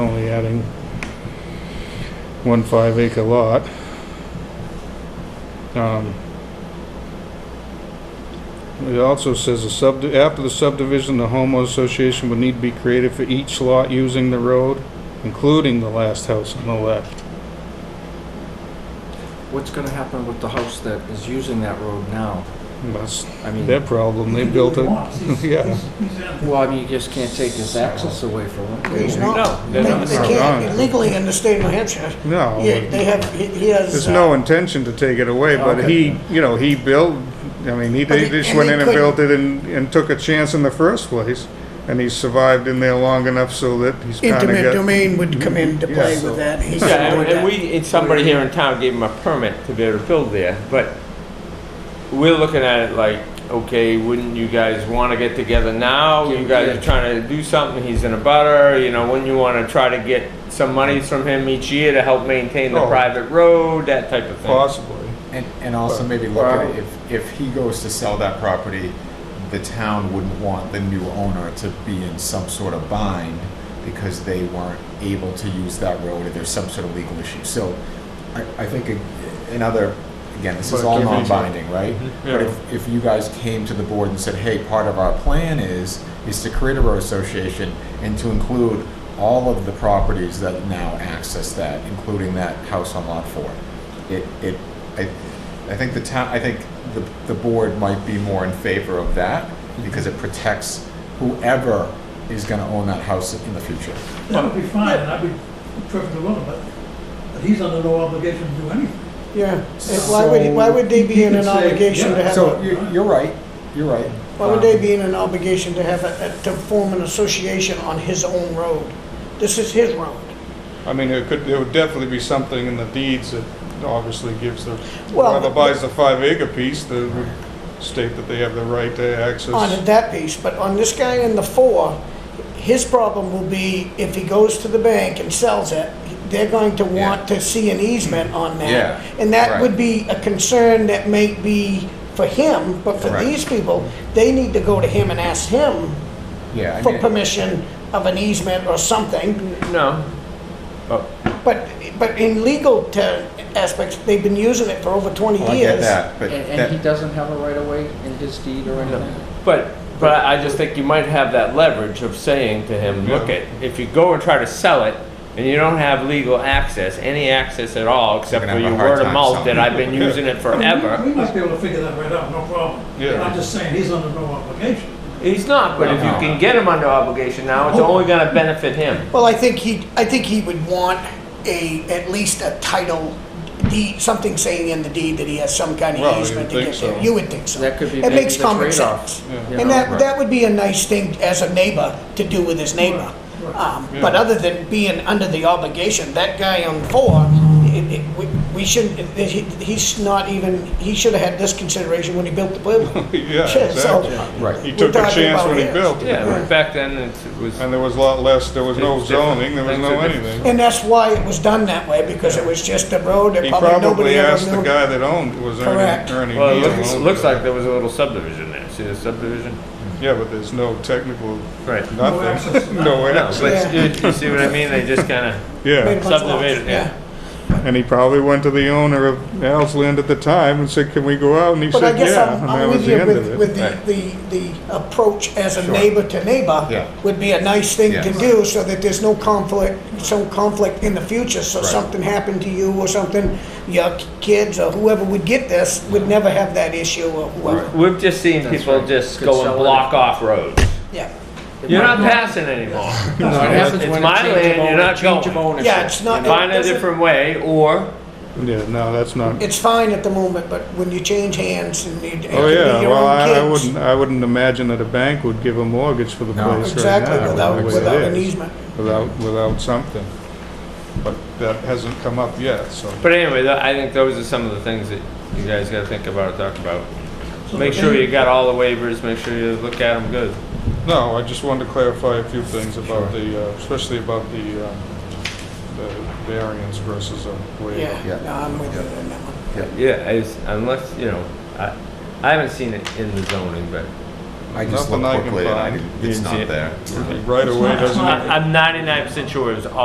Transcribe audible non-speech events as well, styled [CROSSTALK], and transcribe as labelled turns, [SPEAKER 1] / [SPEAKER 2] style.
[SPEAKER 1] only adding one five acre lot. Um, It also says, a sub after the subdivision, the homeowner association would need to be created for each lot using the road, including the last house on the left.
[SPEAKER 2] What's gonna happen with the house that is using that road now?
[SPEAKER 1] That's
[SPEAKER 2] I mean,
[SPEAKER 1] their problem, they built it, [LAUGHS] yeah.
[SPEAKER 2] well, I mean, you just can't take his access away from him.
[SPEAKER 3] He's not.
[SPEAKER 4] No,
[SPEAKER 3] They
[SPEAKER 4] they're not.
[SPEAKER 3] they
[SPEAKER 1] Wrong.
[SPEAKER 3] can't legally in the state of New Hampshire.
[SPEAKER 1] No.
[SPEAKER 3] Yeah, they have, he he has.
[SPEAKER 1] Oh, There's
[SPEAKER 3] uh,
[SPEAKER 1] no intention to take it away, but he, you know, he built, I mean, he, they
[SPEAKER 3] But it-
[SPEAKER 1] just
[SPEAKER 3] and
[SPEAKER 1] went
[SPEAKER 3] they
[SPEAKER 1] in and built it and, and took a chance in the first place. And he survived in there long enough so that he's kinda
[SPEAKER 3] Intimate
[SPEAKER 1] got,
[SPEAKER 3] domain would come into
[SPEAKER 1] Yeah,
[SPEAKER 3] play
[SPEAKER 1] so-
[SPEAKER 3] with that. He shouldn't
[SPEAKER 4] Yeah,
[SPEAKER 3] do
[SPEAKER 4] and- and
[SPEAKER 3] that.
[SPEAKER 4] we, and somebody here in town gave him a permit to be able to build there, but we're looking at it like, okay, wouldn't you guys wanna get together now? You guys are trying to do something, he's in a butter, you know, wouldn't you wanna try to get some monies from him each year to help maintain the
[SPEAKER 1] Oh.
[SPEAKER 4] private road, that type of thing?
[SPEAKER 1] possibly.
[SPEAKER 5] And, and also maybe look at it, if, if he goes to sell that property, the town wouldn't want the new owner to be in some sort of bind because they weren't able to use that road or there's some sort of legal issue. So I, I think a- another, again, this is
[SPEAKER 1] But
[SPEAKER 5] all
[SPEAKER 1] if-
[SPEAKER 5] non-binding, right? But
[SPEAKER 4] Yeah.
[SPEAKER 5] if, if you guys came to the board and said, hey, part of our plan is, is to create a road association and to include all of the properties that now access that, including that house on lot four. It, it, I, I think the town, I think the, the board might be more in favor of that because it protects whoever is gonna own that house in the future.
[SPEAKER 6] That would be fine, and I'd be perfectly willing, but, but he's under no obligation to do anything.
[SPEAKER 3] Yeah, And why would, why would they be in an
[SPEAKER 6] So- You could say,
[SPEAKER 3] obligation to
[SPEAKER 6] yeah.
[SPEAKER 3] have,
[SPEAKER 5] So
[SPEAKER 3] a-
[SPEAKER 5] you, you're right, you're right. Um,
[SPEAKER 3] why would they be in an obligation to have, a- a- to form an association on his own road? This is his road.
[SPEAKER 1] I mean, there could, there would definitely be something in the deeds that obviously gives the,
[SPEAKER 3] Well,
[SPEAKER 1] whoever buys the five acre piece, that would state that they have the right to access.
[SPEAKER 3] on that piece, but on this guy in the four, his problem will be if he goes to the bank and sells it, they're going to want to see an easement on that.
[SPEAKER 5] Yeah,
[SPEAKER 3] And that
[SPEAKER 5] right.
[SPEAKER 3] would be a concern that may be for him, but for
[SPEAKER 5] Correct.
[SPEAKER 3] these people, they need to go to him and ask him
[SPEAKER 5] Yeah. I
[SPEAKER 3] for
[SPEAKER 5] mean-
[SPEAKER 3] permission of an easement or something.
[SPEAKER 4] No,
[SPEAKER 3] But, but in legal ter- aspects, they've been using it for over 20
[SPEAKER 5] Oh, I get
[SPEAKER 3] years.
[SPEAKER 5] that, but
[SPEAKER 2] And, and he
[SPEAKER 5] that,
[SPEAKER 2] doesn't have a right of way in his deed or anything?
[SPEAKER 4] but, but I I just think you might have that leverage of saying to him, look
[SPEAKER 1] Yeah.
[SPEAKER 4] at, if you go and try to sell it, and you don't have legal access, any access at all, except
[SPEAKER 5] gonna
[SPEAKER 4] for
[SPEAKER 5] have
[SPEAKER 4] your
[SPEAKER 5] a hard
[SPEAKER 4] word of
[SPEAKER 5] time
[SPEAKER 4] mouth
[SPEAKER 5] selling
[SPEAKER 4] that
[SPEAKER 5] it. [LAUGHS]
[SPEAKER 4] I've been using it forever. [LAUGHS]
[SPEAKER 6] We might be able to figure that right out, no problem.
[SPEAKER 1] Yeah.
[SPEAKER 6] I'm just saying, he's under no obligation.
[SPEAKER 4] He's not, but if you
[SPEAKER 5] No. Oh.
[SPEAKER 4] can get him under obligation now, it's
[SPEAKER 6] No.
[SPEAKER 4] only gonna benefit him.
[SPEAKER 3] Well, I think he, I think he would want a, at least a title deed, something saying in the deed that he has some kind
[SPEAKER 1] Well,
[SPEAKER 3] of
[SPEAKER 1] you'd
[SPEAKER 3] easement to
[SPEAKER 1] think
[SPEAKER 3] get there.
[SPEAKER 1] so.
[SPEAKER 3] You would think so.
[SPEAKER 2] That could be
[SPEAKER 3] It
[SPEAKER 2] maybe
[SPEAKER 3] makes
[SPEAKER 2] the
[SPEAKER 3] common
[SPEAKER 2] trade-off,
[SPEAKER 3] sense.
[SPEAKER 1] Yeah.
[SPEAKER 3] And
[SPEAKER 5] right.
[SPEAKER 3] that, that would be a nice thing as a neighbor to do with his neighbor.
[SPEAKER 6] Right, right.
[SPEAKER 3] Um, But
[SPEAKER 1] Yeah.
[SPEAKER 3] other than being under the obligation, that guy on four, it- it- we- we shouldn't, it- he- he's not even, he should have had this consideration when he built the building.
[SPEAKER 1] [LAUGHS] Yeah,
[SPEAKER 3] [LAUGHS] So-
[SPEAKER 1] exactly.
[SPEAKER 5] right.
[SPEAKER 1] He
[SPEAKER 3] we're
[SPEAKER 1] took a
[SPEAKER 3] talking
[SPEAKER 1] chance
[SPEAKER 3] about
[SPEAKER 1] when he
[SPEAKER 3] his.
[SPEAKER 1] built it.
[SPEAKER 4] Yeah, back then it's- it was,
[SPEAKER 1] And there was a lot less, there was no
[SPEAKER 4] It's different.
[SPEAKER 1] zoning, there was
[SPEAKER 4] Things are
[SPEAKER 1] no
[SPEAKER 4] different.
[SPEAKER 1] anything.
[SPEAKER 3] And that's why it was done that way, because it was just a road that
[SPEAKER 1] He
[SPEAKER 3] probably nobody
[SPEAKER 1] probably
[SPEAKER 3] ever
[SPEAKER 1] asked
[SPEAKER 3] knew.
[SPEAKER 1] the guy that owned, it was
[SPEAKER 3] Correct.
[SPEAKER 1] Ernie, Ernie.
[SPEAKER 4] well, it
[SPEAKER 1] Neal
[SPEAKER 4] looks,
[SPEAKER 1] owned
[SPEAKER 4] looks
[SPEAKER 1] it.
[SPEAKER 4] like there was a little subdivision there. See the subdivision?
[SPEAKER 1] Yeah, but there's no technical,
[SPEAKER 4] Right.
[SPEAKER 1] nothing,
[SPEAKER 6] access
[SPEAKER 1] [LAUGHS]
[SPEAKER 6] to
[SPEAKER 1] no
[SPEAKER 4] No,
[SPEAKER 1] access.
[SPEAKER 4] but you, you see what I mean? They just kinda,
[SPEAKER 3] Made a
[SPEAKER 1] Yeah,
[SPEAKER 3] bunch of lots,
[SPEAKER 4] Subdivided, yeah.
[SPEAKER 1] and he probably went to the owner of Al's Land at the time and said, can we go out? And he
[SPEAKER 3] But I
[SPEAKER 1] said,
[SPEAKER 3] guess
[SPEAKER 1] yeah,
[SPEAKER 3] I'm,
[SPEAKER 1] and that
[SPEAKER 3] I'm
[SPEAKER 1] was
[SPEAKER 3] with
[SPEAKER 1] the
[SPEAKER 3] you
[SPEAKER 1] end
[SPEAKER 3] with,
[SPEAKER 1] of it.
[SPEAKER 3] with the, the, the approach as a
[SPEAKER 5] Sure.
[SPEAKER 3] neighbor to
[SPEAKER 5] Yeah.
[SPEAKER 3] neighbor would be a nice thing to
[SPEAKER 5] Yes.
[SPEAKER 3] do so that there's no conflict, some conflict in the future. So
[SPEAKER 5] Right.
[SPEAKER 3] something happened to you or something, your kids or whoever would get this would never have that issue or whoever.
[SPEAKER 4] we've just seen
[SPEAKER 2] That's
[SPEAKER 4] people
[SPEAKER 2] right.
[SPEAKER 4] just
[SPEAKER 2] Could
[SPEAKER 4] go and
[SPEAKER 2] sell it.
[SPEAKER 4] block off roads.
[SPEAKER 3] Yeah.
[SPEAKER 4] You're not passing anymore.
[SPEAKER 2] That's what happens
[SPEAKER 4] It's
[SPEAKER 2] when
[SPEAKER 4] my
[SPEAKER 2] a change
[SPEAKER 4] land,
[SPEAKER 2] of
[SPEAKER 4] you're
[SPEAKER 2] owner-
[SPEAKER 4] not
[SPEAKER 2] change of
[SPEAKER 4] going.
[SPEAKER 2] ownership.
[SPEAKER 3] Yeah, it's
[SPEAKER 2] you
[SPEAKER 3] not-
[SPEAKER 2] know?
[SPEAKER 4] Find a
[SPEAKER 3] doesn't-
[SPEAKER 4] different way, or,
[SPEAKER 1] Yeah, no, that's not,
[SPEAKER 3] It's fine at the moment, but when you change hands and you.
[SPEAKER 1] oh, yeah, well, I I wouldn't,
[SPEAKER 3] know.
[SPEAKER 1] I wouldn't imagine that a bank would give a mortgage for the
[SPEAKER 5] No.
[SPEAKER 1] place right
[SPEAKER 3] Exactly,
[SPEAKER 1] now.
[SPEAKER 3] without,
[SPEAKER 1] the way it
[SPEAKER 3] without an
[SPEAKER 1] is,
[SPEAKER 3] easement.
[SPEAKER 1] Without, without something. But that hasn't come up yet, so.
[SPEAKER 4] but anyway, tho- I think those are some of the things that you guys gotta think about and talk about.
[SPEAKER 6] So
[SPEAKER 4] Make
[SPEAKER 6] the
[SPEAKER 4] sure
[SPEAKER 6] thing-
[SPEAKER 4] you got all the waivers, make sure you look at them good.
[SPEAKER 1] No, I just wanted to clarify a few things about the, uh, especially about the um, the variance versus a waiver.
[SPEAKER 3] Yeah, no, I'm with you on that one.
[SPEAKER 4] Yeah, it's, unless, you know, I, I haven't seen it in the zoning, but
[SPEAKER 5] I just
[SPEAKER 1] Nothing
[SPEAKER 5] looked
[SPEAKER 1] I can
[SPEAKER 5] quickly and I
[SPEAKER 1] find.
[SPEAKER 5] didn't, it's
[SPEAKER 4] Didn't see
[SPEAKER 5] not
[SPEAKER 4] it.
[SPEAKER 5] there.
[SPEAKER 1] Right away
[SPEAKER 6] It's not- it's
[SPEAKER 1] doesn't.
[SPEAKER 6] not-
[SPEAKER 4] I- I'm ninety-nine percent sure it was